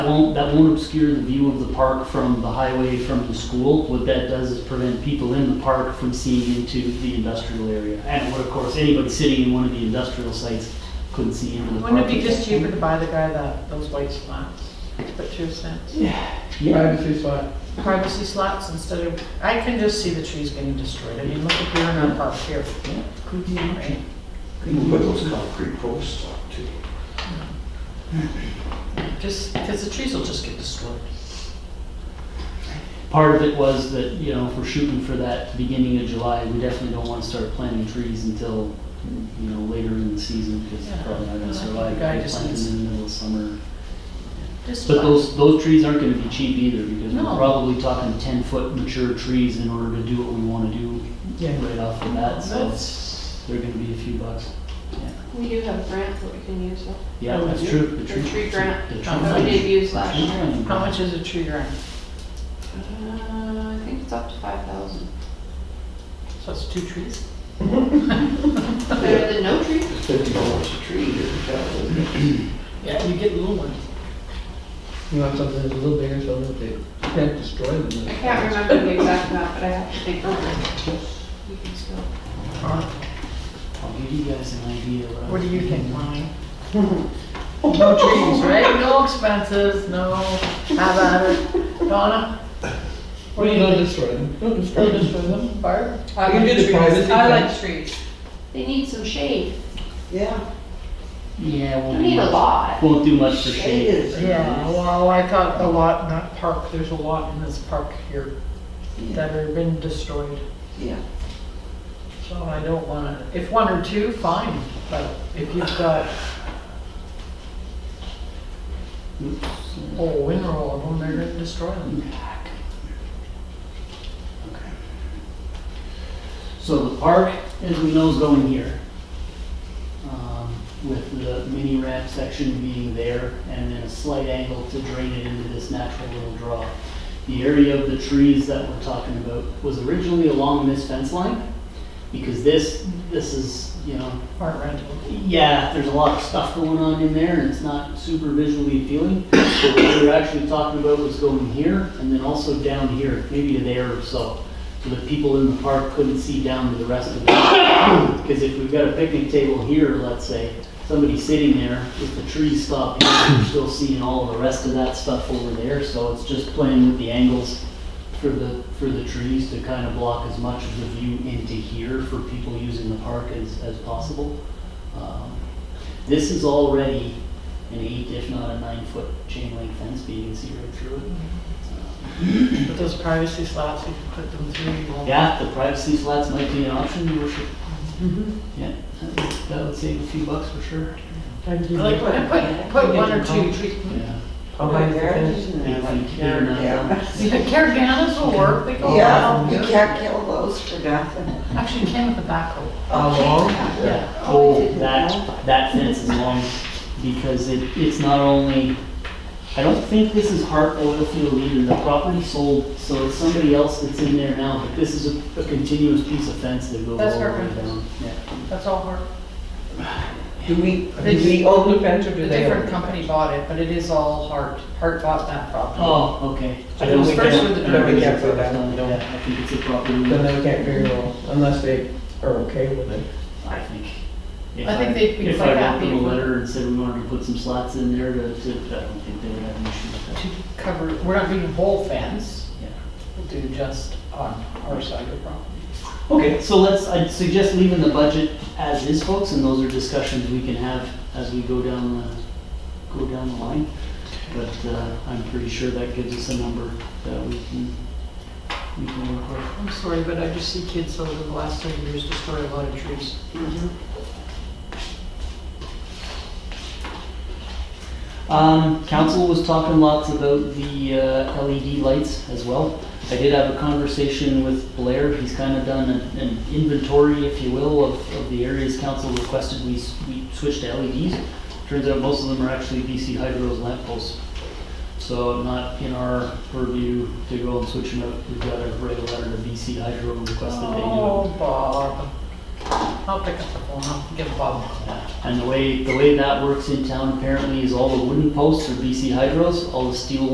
That won't, that won't obscure the view of the park from the highway from the school. What that does is prevent people in the park from seeing into the industrial area. And what, of course, anybody sitting in one of the industrial sites couldn't see into the park. Wouldn't it be just cheaper to buy the guy that, those white slots for two cents? Yeah, Privacy slots instead of, I can just see the trees getting destroyed. I mean, look at here and up up here. could be an option. right? You can put those concrete posts up too. Just, because the trees will just get destroyed. Part of it was that, you know, if we're shooting for that beginning of July, we definitely don't want to start planting trees until, you know, later in the season because they're probably not going to Yeah, I think survive. the guy just planting needs- in the middle of summer. Just But those, those trees aren't gonna be cheap either, because we're No. probably talking ten-foot mature trees in order to do what we wanna do Yeah. right off the bat, so That's- they're gonna be a few bucks. We do have grants that we can use, though. Yeah, Oh, that's yeah. true. The The tree- tree grant. The tree Oh, that grant. we did use The last tree year. grant. How much is a tree grant? Uh, I think it's up to five thousand. So it's two trees? Better than no tree. It's fifty dollars a tree here in town, isn't it? Yeah, you get little ones. You want something that's a little bigger so that they can't destroy them. I can't remember the exact amount, but I have to think over it. We can still. I'll give you guys an idea. of What do you think, Lonnie? No Trees, right? No expenses, no, how about it? Donna? What do you Don't think? destroy them. Don't destroy Don't them. destroy them, Barb? You can do the privacy I thing. like trees. They need some shade. Yeah. Yeah, We won't do need a much, lot. won't do much for shade. Yeah, well, I got a lot in that park, there's a lot in this park here that have been destroyed. Yeah. So I don't wanna, if one or two, fine, but if you've got Oops. a whole winter of them, they're gonna destroy them. Okay. So the park, as we know, is going here. um, With the mini ramp section being there and then a slight angle to drain it into this natural little draw. The area of the trees that we're talking about was originally along this fence line because this, this is, you know, Part rental. yeah, there's a lot of stuff going on in there and it's not super visually appealing. But what we were actually talking about was going here and then also down here, maybe to there or so. So that people in the park couldn't see down to the rest of it. Because if we've got a picnic table here, let's say, somebody sitting there, if the trees stop here, you're still seeing all the rest of that stuff over there. So it's just playing with the angles for the, for the trees to kind of block as much of the view into here for people using the park as, as possible. Um, This is already an eight, if not a nine-foot chain link fence, but you can see right through it. Mm-hmm. But those privacy slots, you can put them through, you won't. Uh, Yeah, the privacy slats might be an option, your worship. Mm-hmm. Yeah, that would- that would save a few bucks for sure. Like, put- put, put one or two trees. Mm-hmm. Yeah. How high is the fence? Yeah, Caravanas will work, they go Yeah, you around. can't kill those for nothing. Actually, came with a backhoe. How long? Yeah, Oh, I oh, didn't know. that, that fence is long, because it, it's not only, I don't think this is Hart Oil Field either, the property sold, so it's somebody else that's in there now, but this is a, a continuous piece of fence that goes That's all the Hart way Oil. down. Yeah. That's all her. Do we, do we own the fence or do A they own different it? company bought it, but it is all Hart. Hart bought that property. Oh, okay. So then we First can't- with the then we doors. can't go back and don't- Yeah, I think it's a property, Then we can't figure it out unless they are okay with it. I think. If I think they'd be If I quite wrote them happy a if we- letter and said we wanted to put some slots in there to, to, I don't think they would have an issue with To cover, we're not doing whole fence, that, yeah. we'll do just on our side of the property. Okay, so let's, I'd suggest leaving the budget as is, folks, and those are discussions we can have as we go down the, go down the line. But, uh, I'm pretty sure that gives us a number that we can, we can work with. I'm sorry, but I just see kids over the last ten years destroy a lot of trees. Um, council was talking lots about the uh, LED lights as well. I did have a conversation with Blair, he's kind of done an an inventory, if you will, of, of the areas council requested we, s- we switch to LEDs. Turns out most of them are actually BC Hydro's lamp posts. So not in our purview to go and switch them out, we've got to write a letter to BC Hydro and request that they do it. Oh, Bob. I'll pick up the phone, I'll give Bob. And the way, the way that works in town apparently is all the wooden posts are BC hydros, all the steel